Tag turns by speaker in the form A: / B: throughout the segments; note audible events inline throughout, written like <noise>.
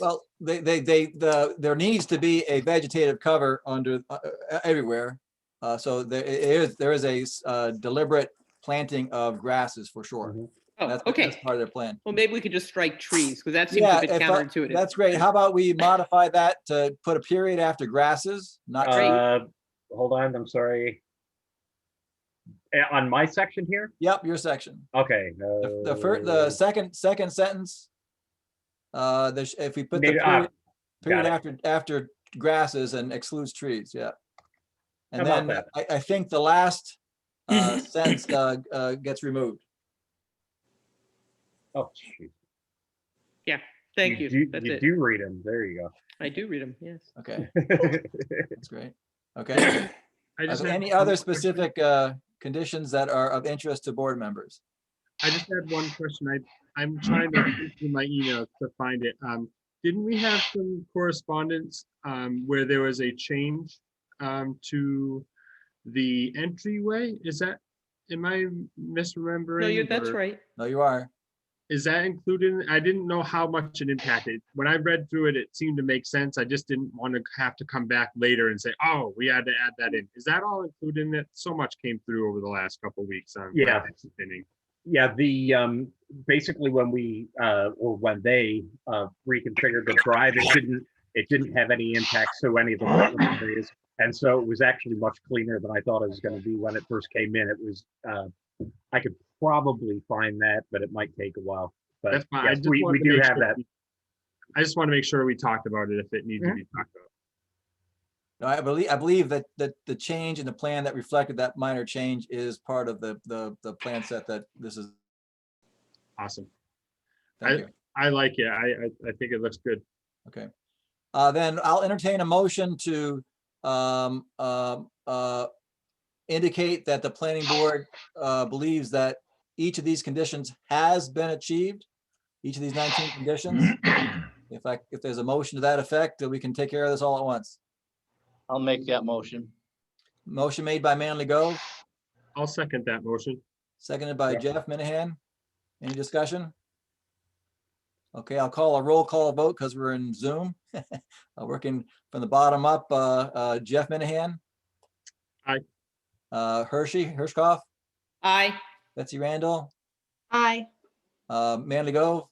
A: Well, they, they, they, the, there needs to be a vegetative cover under, uh, uh, everywhere. Uh, so there i- is, there is a s- uh, deliberate planting of grasses for sure.
B: Mhm.
C: Oh,
A: That's, that's
C: okay.
A: part of their plan.
C: Well, maybe we could just strike trees because that seems a bit
A: if I-
C: counterintuitive.
A: That's great. How about we modify that to put a period after grasses, not
C: Great.
B: Uh, Hold on, I'm sorry. Eh, On my section here?
A: Yep, your section.
B: Okay. uh,
A: The, the first, the second, second sentence. Uh, the sh- if we put the
B: Maybe- ah,
A: period, period
B: it.
A: after, after grasses and excludes trees, yeah. And
B: How about
A: then I, I think the last,
D: <laughs>
A: uh, sentence, uh, uh, gets removed.
B: uh, oh, shoot.
C: Thank you.
B: do-
C: That's
B: You
C: it.
B: do read them, there you
C: I do read them, yes.
A: Okay,
B: go. <laughs>
A: that's great. Okay.
D: I
A: Are
D: just
A: there
D: had
A: any
D: one
A: other
D: question.
A: specific, uh, conditions that are of interest to board members?
D: I just had one question. I, I'm
C: Mm-hmm.
D: trying to dig through my emails to find it. Um, didn't we have some correspondence, um, where there was a change, um, to the entryway? Is that, am I misremembering?
C: No, you're, that's
D: or
C: right.
A: No, you are.
D: Is that included? in- I didn't know how much it impacted. When I read through it, it seemed to make sense. I just didn't want to have to come back later and say, oh, we had to add that in. Is that all included in it? So much came through over the last couple of weeks on.
B: Yeah.
D: Fridays and Thursdays.
B: Yeah, the, um, basically when we, uh, or when they, uh, reconfigured the drive, it didn't, it didn't have any impact to any of the wetland areas. And so it was actually much cleaner than I thought it was gonna be when it first came in. It was, uh, I could probably find that, but it might take a while. But
D: That's fine. I
B: yes,
D: just
B: we,
D: wanted
B: we
D: to
B: do
D: make
B: have
D: sure
B: that.
D: we- I just want to make sure we talked about it if it needs to
B: Mhm.
D: be talked about.
A: No, I believe, I believe that, that the change in the plan that reflected that minor change is part of the, the, the plan set that this is.
D: Awesome.
A: Thank you.
D: I like it. I, I, I think it looks good.
A: Okay. Uh, then I'll entertain a motion to, um, um, uh, indicate that the planning board, uh, believes that each of these conditions has been achieved, each of these nineteen conditions. If I, if there's a motion to that effect, that we can take care of this all at once.
E: I'll make that motion.
A: Motion made by Manley Go,
D: I'll second that motion.
A: seconded by Jeff Minahan. Any discussion? Okay, I'll call a roll call vote because we're in Zoom. <laughs> Uh, Working from the bottom up, uh, uh, Jeff Minahan.
D: Aye.
A: Uh, Hershey, Hirschkoff,
C: Aye.
A: Betsy Randall,
F: Aye.
A: uh, Manley Gove,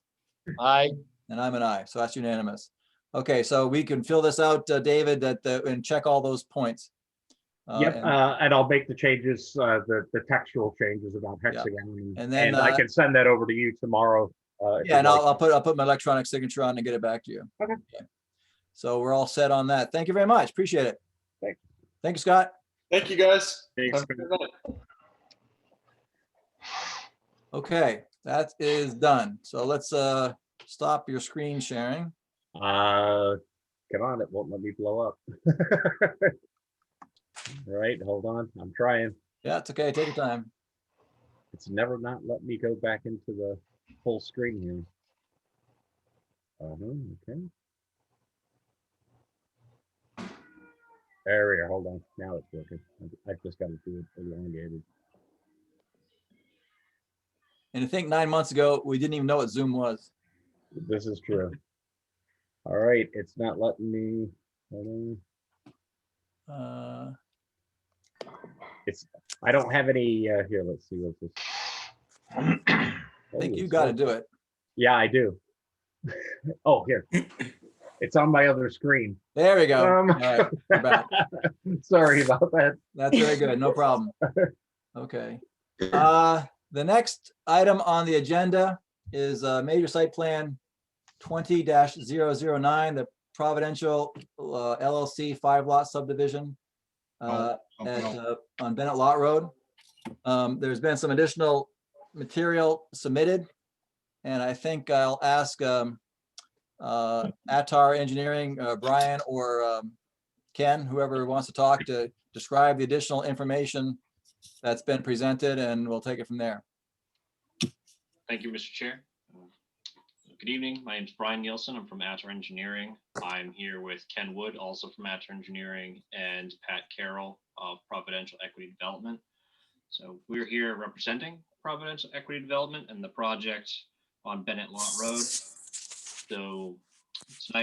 E: Aye,
A: and I'm an aye, so that's unanimous. Okay, so we can fill this out, uh, David, that, the- and check all those points. Uh,
B: Yep,
A: and-
B: uh, and I'll make the changes, uh, the, the textual changes about
A: Yeah.
B: hexagon.
A: And
B: And
A: then,
B: and I
A: uh,
B: can send that over to you tomorrow. uh, if
A: Yeah,
B: you'd
A: and
B: like.
A: I'll, I'll put, I'll put my electronic signature on and get it back to you.
B: Okay.
A: Yeah. So we're all set on that. Thank you very much. Appreciate it.
B: Thanks.
A: Thank you, Scott.
G: Thank you, guys.
D: Thanks.
G: Have a good night.
A: Okay, that is done. So let's, uh, stop your screen sharing.
B: Uh, come on, it won't let me blow up. <laughs> Right, hold on, I'm trying.
A: Yeah, it's okay. Take your time.
B: It's never not let me go back into the full screen here. Uh-huh, okay. There we are, hold on, now it's working. I- I've just gotta do it elongated.
A: And I think nine months ago, we didn't even know what Zoom was.
B: This is true. All right, it's not letting me, hold on.
A: Uh,
B: I don't have any, uh, here, let's see what this.
A: I think
B: Holy
A: you gotta
B: smokes.
A: do it.
B: Yeah, I do. <laughs> oh,
A: <clears throat>
B: here. It's on my other screen.
A: There we go.
B: Um,
A: All right, we're back.
B: <laughs> Sorry about that.
A: That's very good. No problem. Okay. Uh, the next item on the agenda is a major site plan twenty 9 the Providential uh, LLC five lot subdivision uh, at, uh, on Bennett Lot Road. Um, there's been some additional material submitted. And I think I'll ask, um, uh, Atar Engineering, uh, Brian or, um, Ken, whoever wants to talk to describe the additional information that's been presented and we'll take it from there.
H: Thank you, Mr. Chair. Good evening. My name is Brian Nielsen. I'm from Atter Engineering. I'm here with Ken Wood, also from Atter Engineering, and Pat Carroll of Providential Equity Development. So we're here representing Providential Equity Development and the project on Bennett Lot Road. So Tonight,